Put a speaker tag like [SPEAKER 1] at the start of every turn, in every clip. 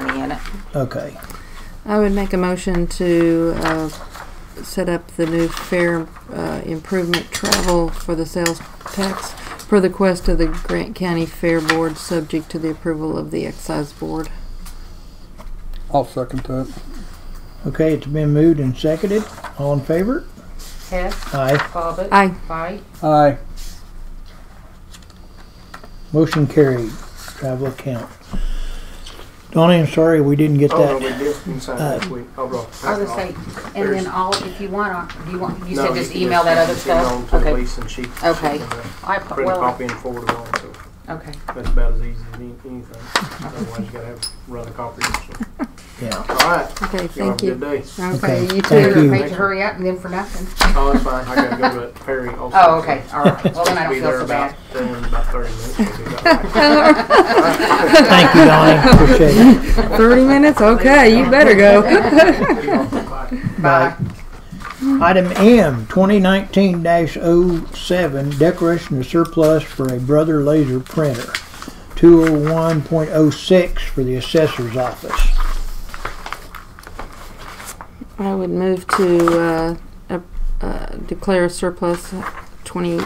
[SPEAKER 1] money in it.
[SPEAKER 2] Okay.
[SPEAKER 3] I would make a motion to uh, set up the new fair uh, improvement travel for the sales tax for the quest of the Grant County Fair Board, subject to the approval of the excise board.
[SPEAKER 4] I'll second that.
[SPEAKER 2] Okay, it's been moved and seconded. All in favor?
[SPEAKER 1] Hess,
[SPEAKER 2] Aye.
[SPEAKER 1] Bobbit.
[SPEAKER 3] Aye.
[SPEAKER 1] Bite.
[SPEAKER 4] Aye.
[SPEAKER 2] Motion carried. Travel account. Donnie, I'm sorry we didn't get
[SPEAKER 5] Oh, no, we
[SPEAKER 2] that.
[SPEAKER 5] did inside
[SPEAKER 3] uh,
[SPEAKER 5] last week. I brought.
[SPEAKER 1] I was gonna say, and then
[SPEAKER 5] There's-
[SPEAKER 1] all, if you want, to you want, you
[SPEAKER 5] No,
[SPEAKER 1] said just
[SPEAKER 5] can
[SPEAKER 1] email that other
[SPEAKER 5] email
[SPEAKER 1] stuff?
[SPEAKER 5] to
[SPEAKER 1] Okay.
[SPEAKER 5] Lisa and she- she
[SPEAKER 1] Okay.
[SPEAKER 5] can, uh,
[SPEAKER 1] I,
[SPEAKER 5] Print a
[SPEAKER 1] well,
[SPEAKER 5] copy and forward it on, so
[SPEAKER 1] okay.
[SPEAKER 5] that's about as easy as any- anything. Otherwise, you gotta have, run a copy. so.
[SPEAKER 2] Yeah.
[SPEAKER 5] All right,
[SPEAKER 3] Okay,
[SPEAKER 5] y'all have a
[SPEAKER 3] thank
[SPEAKER 5] good
[SPEAKER 3] you.
[SPEAKER 5] day.
[SPEAKER 3] Okay,
[SPEAKER 2] Okay,
[SPEAKER 3] you
[SPEAKER 2] thank
[SPEAKER 1] You're
[SPEAKER 3] too.
[SPEAKER 2] you.
[SPEAKER 1] afraid to hurry up and then for nothing.
[SPEAKER 5] Oh, that's fine. I gotta go to that ferry also.
[SPEAKER 1] Oh, okay, all right. Well, then I
[SPEAKER 5] Supposed to
[SPEAKER 1] don't
[SPEAKER 5] be
[SPEAKER 1] feel
[SPEAKER 5] there
[SPEAKER 1] so
[SPEAKER 5] about,
[SPEAKER 1] bad.
[SPEAKER 5] in about thirty minutes. We'll be about right.
[SPEAKER 2] Thank you, Donnie. Appreciate it.
[SPEAKER 3] Thirty minutes? Okay, you better go.
[SPEAKER 5] Bye.
[SPEAKER 1] Bye.
[SPEAKER 2] Item M, 2019-07, declaration of surplus for a Brother Laser printer. 201.06 for the assessor's office.
[SPEAKER 3] I would move to uh, ap- uh, declare surplus twenty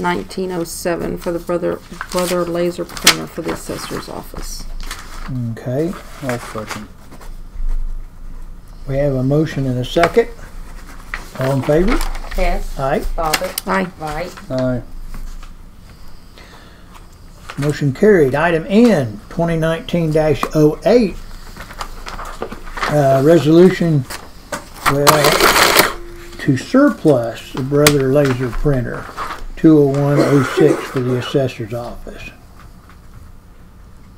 [SPEAKER 3] nineteen oh seven for the brother brother laser printer for the assessor's office.
[SPEAKER 2] Okay,
[SPEAKER 4] I'll second.
[SPEAKER 2] we have a motion and a second. All in favor?
[SPEAKER 1] Hess,
[SPEAKER 2] Aye.
[SPEAKER 1] Bobbit,
[SPEAKER 3] Aye.
[SPEAKER 1] Bite.
[SPEAKER 4] Aye.
[SPEAKER 2] Motion carried. Item N, 2019-08, uh, resolution, well, to surplus the Brother Laser Printer, 20106 for the assessor's office.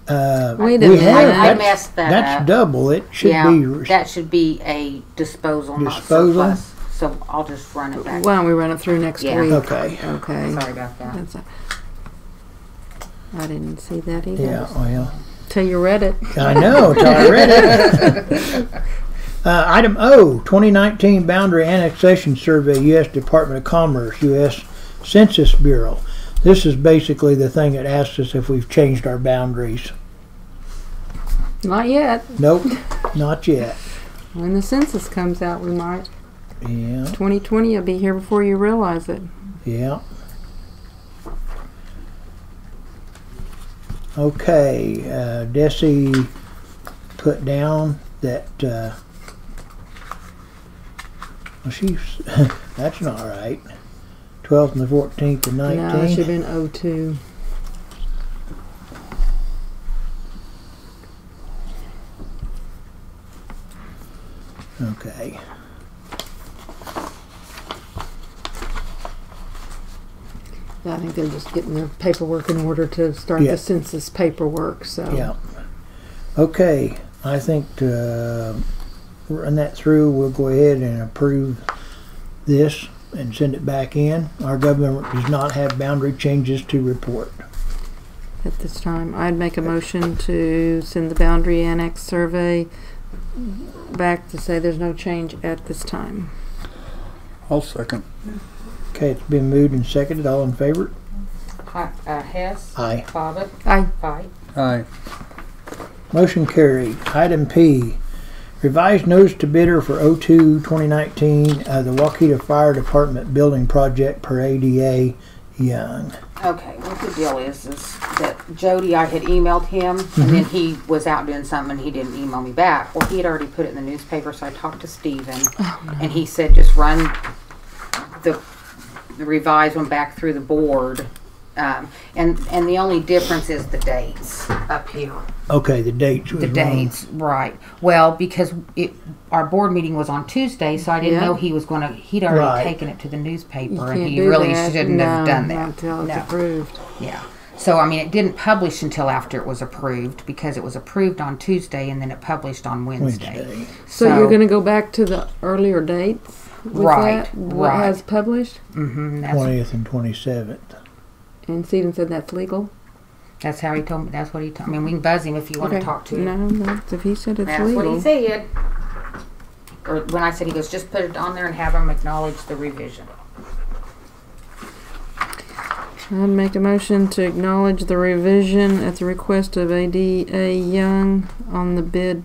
[SPEAKER 2] Uh,
[SPEAKER 3] Wait a
[SPEAKER 2] we
[SPEAKER 3] minute.
[SPEAKER 2] have-
[SPEAKER 3] I
[SPEAKER 2] that's-
[SPEAKER 1] messed that
[SPEAKER 2] That's
[SPEAKER 1] up.
[SPEAKER 2] double. It should be,
[SPEAKER 1] Uh, that should be a disposal,
[SPEAKER 2] not Disposal? surplus.
[SPEAKER 1] So I'll just run it
[SPEAKER 3] Why don't we run it through next
[SPEAKER 1] Yeah.
[SPEAKER 3] week?
[SPEAKER 2] okay,
[SPEAKER 3] Okay.
[SPEAKER 1] Sorry about that.
[SPEAKER 3] That's a- I didn't see that either.
[SPEAKER 2] yeah, well.
[SPEAKER 3] Till you read it.
[SPEAKER 2] I know, till I read it. Uh, item O, 2019 Boundary Annexation Survey, U.S. Department of Commerce, U.S. Census Bureau. This is basically the thing that asks us if we've changed our boundaries.
[SPEAKER 3] Not yet.
[SPEAKER 2] Nope, not yet.
[SPEAKER 3] When the census comes out, we might.
[SPEAKER 2] Yeah,
[SPEAKER 3] Twenty twenty will be here before you realize it.
[SPEAKER 2] yeah. Okay, uh, Desi put down that, uh, well, she's, that's not right. 12th and the 14th and
[SPEAKER 3] No, it
[SPEAKER 2] 19th.
[SPEAKER 3] should have been O two.
[SPEAKER 2] Okay.
[SPEAKER 3] I think they're just getting their paperwork in order to start
[SPEAKER 2] Yeah.
[SPEAKER 3] the census paperwork, so.
[SPEAKER 2] Yeah. Okay, I think to uh, run that through, we'll go ahead and approve this and send it back in. Our government does not have boundary changes to report.
[SPEAKER 3] At this time, I'd make a motion to send the boundary annex survey back to say there's no change at this time.
[SPEAKER 4] I'll second.
[SPEAKER 2] Okay, it's been moved and seconded. All in favor?
[SPEAKER 1] Hi- Uh, Hess,
[SPEAKER 2] Aye.
[SPEAKER 1] Bobbit,
[SPEAKER 3] Aye.
[SPEAKER 1] Bite.
[SPEAKER 4] Aye.
[SPEAKER 2] Motion carried. Item P, revised notice to bidder for O2 2019, uh, the Waukeeta Fire Department Building Project per ADA Young.
[SPEAKER 1] Okay, what the deal is, is that Jody, I had emailed him, and then
[SPEAKER 3] Mm-hmm.
[SPEAKER 1] he was out doing something, and he didn't email me back. Well, he had already put it in the newspaper, so I talked to Steven,
[SPEAKER 3] Oh,
[SPEAKER 1] and he said, just run the the revised one back through the board. Um, and, and the only difference is the dates up here.
[SPEAKER 2] Okay, the dates was
[SPEAKER 1] The
[SPEAKER 2] wrong.
[SPEAKER 1] dates, right. Well, because it, our board meeting was on Tuesday, so I didn't
[SPEAKER 3] Yeah.
[SPEAKER 1] know he was gonna, he'd already
[SPEAKER 2] Right.
[SPEAKER 1] taken it to the newspaper
[SPEAKER 3] You
[SPEAKER 1] and
[SPEAKER 3] can't
[SPEAKER 1] he
[SPEAKER 3] do
[SPEAKER 1] really
[SPEAKER 3] that.
[SPEAKER 1] shouldn't have
[SPEAKER 3] No,
[SPEAKER 1] done
[SPEAKER 3] not
[SPEAKER 1] that.
[SPEAKER 3] Until it's
[SPEAKER 1] No.
[SPEAKER 3] approved.
[SPEAKER 1] Yeah. So, I mean, it didn't publish until after it was approved because it was approved on Tuesday and then it published on Wednesday.
[SPEAKER 2] Wednesday.
[SPEAKER 3] So you're gonna go back to the earlier dates with
[SPEAKER 1] Right,
[SPEAKER 3] that, what
[SPEAKER 1] right.
[SPEAKER 3] has published?
[SPEAKER 1] hmm that's,
[SPEAKER 2] 20th and 27th.
[SPEAKER 3] And Stephen said that's legal?
[SPEAKER 1] that's how he told me. That's what he told I mean, we can buzz him if you want
[SPEAKER 3] Okay.
[SPEAKER 1] to talk to him.
[SPEAKER 3] No, that's, if he said it's
[SPEAKER 1] That's what he
[SPEAKER 3] legal.
[SPEAKER 1] said. Or when I said he goes, just put it on there and have him acknowledge the revision.
[SPEAKER 3] I'd make a motion to acknowledge the revision at the request of ADA Young on the bid